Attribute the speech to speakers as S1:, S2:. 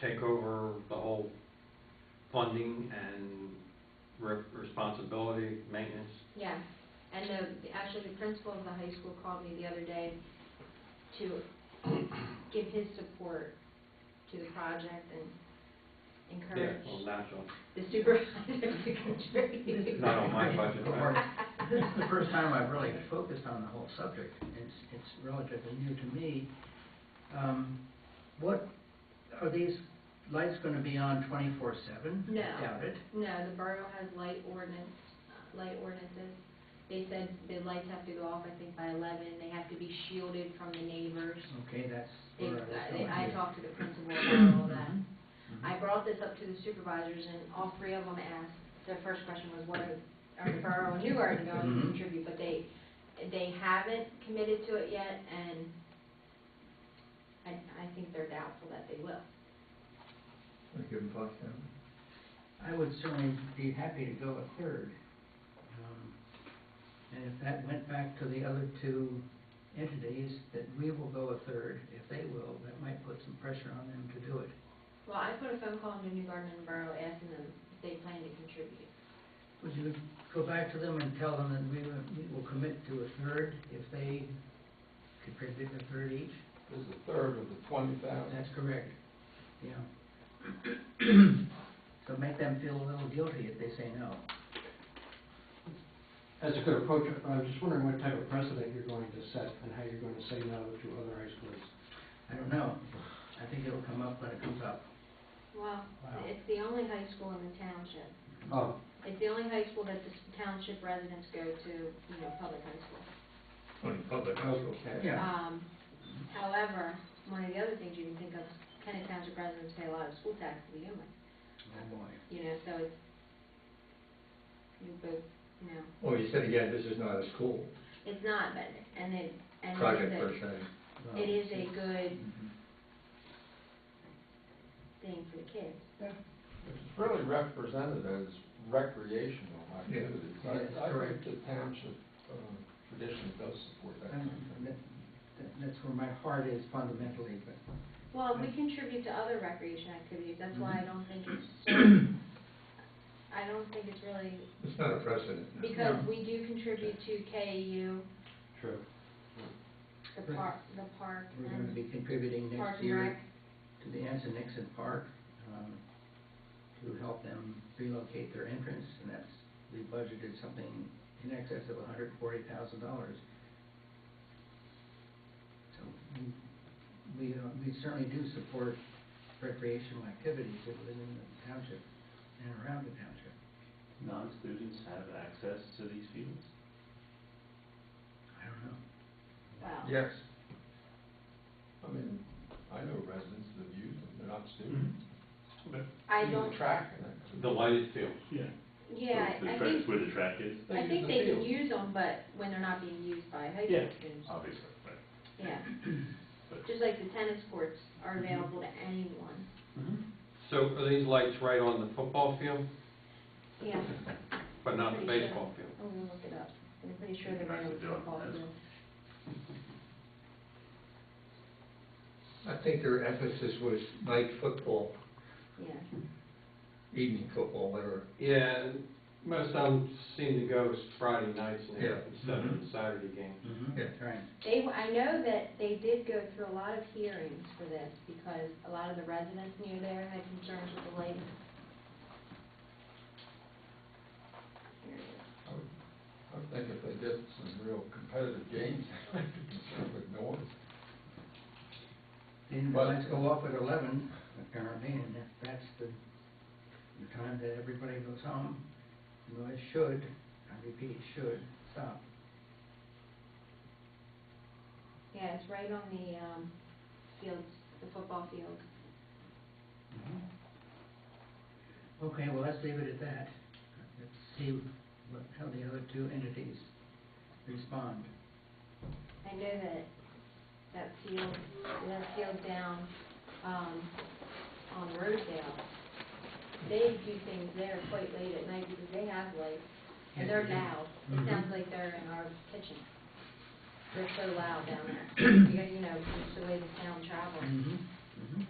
S1: take over the whole funding and re- responsibility, maintenance?
S2: Yeah, and the, actually, the principal of the high school called me the other day to give his support to the project and
S1: Yeah,
S2: encourage
S1: well, natural.
S2: the supervisor to contribute.
S1: Not on my budget, right?
S3: This is the first time I've really focused on the whole subject. It's, it's relatively new to me. Um, What, are these lights going to be on twenty-four seven?
S2: No.
S3: Doubt it.
S2: No, the borough has light ordinance, uh, light ordinances. They said the lights have to go off, I think, by eleven, they have to be shielded from the neighbors.
S3: Okay, that's
S2: They,
S3: where I was
S2: I-
S3: going.
S2: I talked to the principal about all that.
S3: Mhm.
S2: I brought this up to the supervisors, and all three of them asked, their first question was, what are, are the borough and Newgarden going to
S3: Mhm.
S2: contribute? But they, they haven't committed to it yet, and I, I think they're doubtful that they will.
S4: Give them five thousand.
S3: I would certainly be happy to go a third. Um, And if that went back to the other two entities, that we will go a third, if they will, that might put some pressure on them to do it.
S2: Well, I put a phone call into Newgarden and Borough asking them if they plan to contribute.
S3: Would you go back to them and tell them that we will, we will commit to a third if they could predict a third each?
S4: This is a third of the twenty thousand.
S3: That's correct, yeah. So make them feel a little guilty if they say no.
S5: That's a good approach. I was just wondering what type of precedent you're going to set and how you're going to say no to other high schools.
S3: I don't know. I think it'll come up when it comes up.
S2: Well,
S5: Wow.
S2: it's the only high school in the township.
S5: Oh,
S2: It's the only high school that the township residents go to, you know, public high school.
S4: Twenty public households.
S3: Yeah.
S2: Um, however, one of the other things you can think of, Kennet Township residents pay a lot of school tax to begin with,
S3: Oh, boy.
S2: you know, so it's, you both, you know,
S4: Well, Oh, you said again, this is not a school
S2: it's not, but, and it, and
S4: project
S2: it
S4: per
S2: is
S4: se.
S2: a, it is
S3: Mm-hmm.
S2: a good
S4: Mhm.
S2: thing for the kids.
S6: It's really represented as recreational activities.
S3: Yeah, that's
S6: I, I
S3: correct.
S6: think the township, um, tradition does support that. kind of
S3: I'm-
S6: thing.
S3: that- that- That's where my heart is fundamentally, but
S2: Well, we contribute to other recreation activities, that's why
S3: Mm-hmm.
S2: I don't think it's so, I don't think it's really,
S4: It's not a precedent.
S2: because
S3: No.
S2: we do contribute to KU,
S5: true.
S2: the
S3: Right.
S2: park, the park,
S3: we're going to
S2: and
S3: be contributing
S2: Park
S3: next
S2: and
S3: year
S2: Rec.
S3: to the Anson Nixon Park um, to help them relocate their entrance, and that's, we budgeted something in excess of $140,000. So we- we, uh, we certainly do support recreational activities within the township and around the township.
S7: non-students have access to these fields?
S3: I don't know.
S2: Well,
S6: Yes. I mean, I know residents that have used them, they're not students.
S2: Mm-hmm. I
S6: Use the
S2: don't,
S6: Track and that.
S1: The lighted fields.
S7: Yeah.
S2: yeah,
S7: The
S2: I
S7: track-
S2: think
S7: Where the track is,
S2: I
S6: use
S2: think
S6: the
S2: they can
S6: field.
S2: use them, but when they're not being used by high school
S7: Yeah.
S2: students.
S7: obviously, right.
S2: Yeah.
S7: But-
S2: Just like the tennis courts are available to anyone.
S1: So are these lights right on the football field,
S2: Yeah,
S1: but not the
S2: Pretty sure.
S1: baseball field?
S2: I'm gonna look it up. I'm pretty sure they're
S7: Nice
S2: right on the
S7: to do it.
S2: football
S7: That's-
S2: field.
S4: I think their emphasis was night football,
S2: Yeah.
S4: evening football, whatever.
S1: Yeah, and most of them seem to go Friday nights now
S4: Yeah.
S1: instead of the Saturday game.
S4: Yeah.
S3: That's right.
S2: They, w- I know that they did go through a lot of hearings for this because a lot of the residents near there had concerns with the lighting. Here it is.
S6: I would- I would think if they did some real competitive games, they might be concerned with noise.
S3: And
S6: But-
S3: let's go off at eleven, apparently, and if that's the, the time that everybody goes home, you know, it should, I repeat, should stop.
S2: Yeah, it's right on the, um, fields, the football field.
S3: Mm-hmm. Okay, well, let's leave it at that. Let's see what, how the other two entities respond.
S2: I know that, that field, that field down, um, on Rosedale, they do things there quite late at night because they have lights, and they're loud. It
S3: Mhm.
S2: sounds like they're in our kitchen. They're so loud down there. You guys, you know, just the way the sound travels.
S3: Mm-hmm, mm-hmm.